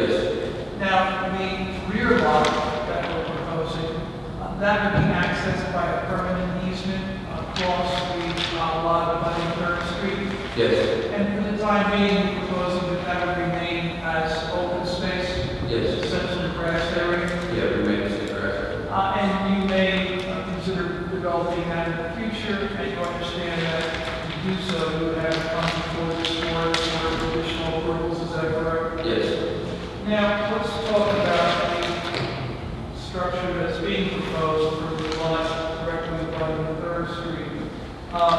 uh, uh, Uh, Now, let's talk about the structure that's being proposed for the lot directly abutting Third Street. Um,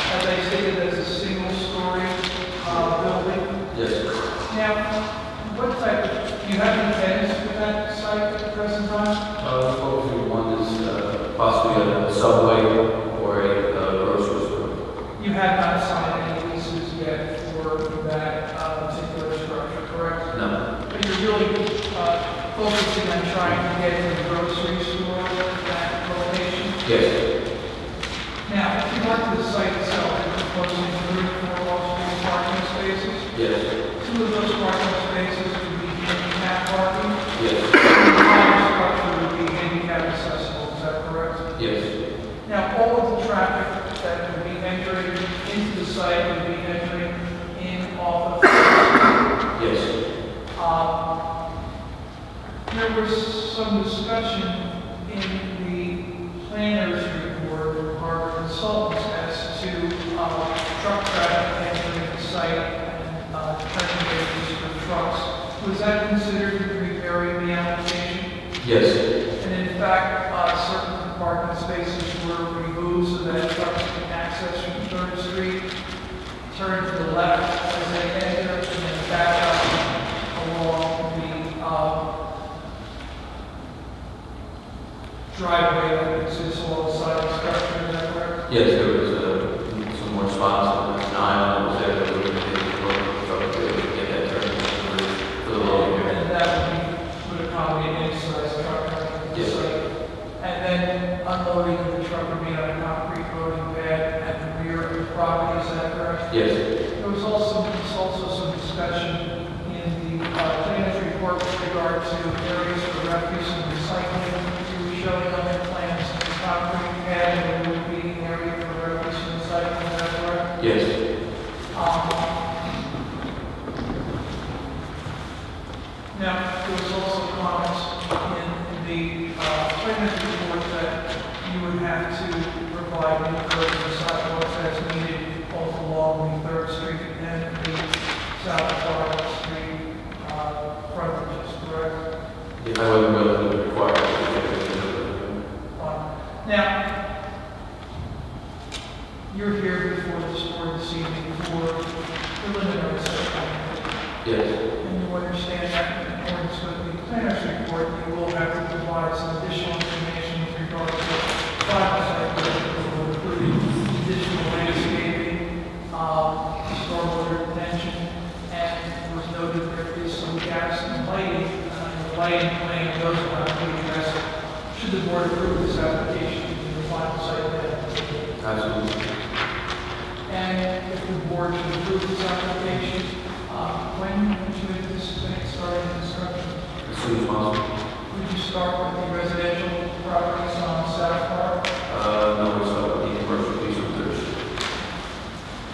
As I stated, that's a single-story uh, building. Yes. Now, what type, of- do you have any plans for that site at present time? Uh, hopefully one is uh, possibly a subway or a uh, grocery store. You have not signed any leases yet for that uh, particular structure, correct? No. But you're really uh, focusing on trying to get to the grocery store at that location. Yes. Now, if you want the site itself, you're proposing three or four off-street parking spaces. Yes. Two of those parking spaces would be handicap parking. Yes. The entire structure would be handicap accessible, is that correct? Yes. Now, all of the traffic that would be entering into the site would be entering in off of Yes. Um, There was some discussion in the planner's report from our consultants as to uh, truck traffic entering the site and uh, turning radius for trucks. Was that considered in preparing the application? Yes. And in fact, uh, certain parking spaces were removed so that trucks can access from Third Street, turn to the left as they enter, and then back out along the uh, driveway that exists alongside the structure, is that correct? Yes, there was uh, some more spots, an aisle that was there that we were going to work to get that turned for- for the lower And area. that would be, would accommodate an size truck on the Yes. site. And then unloading the truck would be on a concrete loading pad at the rear of the property, is that correct? Yes. There was also, there's also some discussion in the uh, planner's report with regard to areas for refuse and recycling. You were showing on the plans, the concrete pad, there would be an area for refuse and recycling, is that correct? Yes. Now, there was also comments in the uh, planner's report that you would have to provide in-person sidewalks as needed both along the Third Street and the South Clark Street uh, frontages, correct? I wasn't willing to require it. Fine. Now, you're here before this board this evening for preliminary site plan. Yes. And you understand that in accordance with the planner's report, you will have to provide some additional information with regard to five site plan, including additional landscaping, um, stormwater retention, and it was noted there is some gaps in lighting, and the lighting plan goes around to address. Should the board approve this application, the final site plan? Absolutely. And if the board should approve this application, uh, when would you anticipate starting construction? As soon as possible. Would you start with the residential properties on South Park? Uh, no, it's not the commercial piece of this.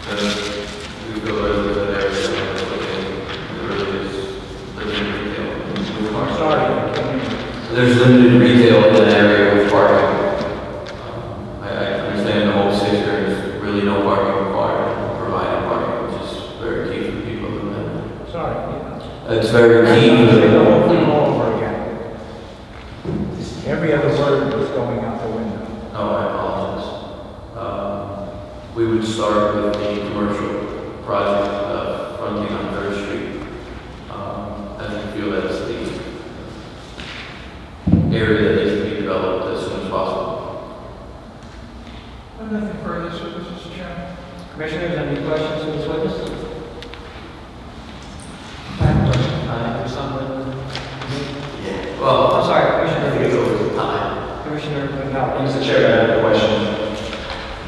Uh, we go over the area, okay, there really is limited retail. I'm sorry, I can't hear you. There's limited retail in that area with parking. Um, I, I understand the whole city, there's really no parking required, provided parking, which is very key for people in that. Sorry. yeah. It's very I'm key. gonna say the whole thing all over again. Just Every other word was going out the window. No, Oh, I apologize. Um, We would start with the commercial project uh, fronting on Third Street. Um, And I feel that's the area that needs to be developed as soon as possible. I have nothing further, so Mr. Chairman. Commissioners, any questions for this witness? Uh, for someone- Yeah. Well, Oh, I'm sorry, I think it Commissioner, goes with time. Commissioner Penel. Mr. Chairman, I have a question.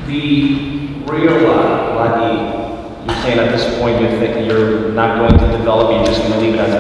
The rear lot, lot E, you're saying at this point you think you're not going to develop, you're just going to leave it as a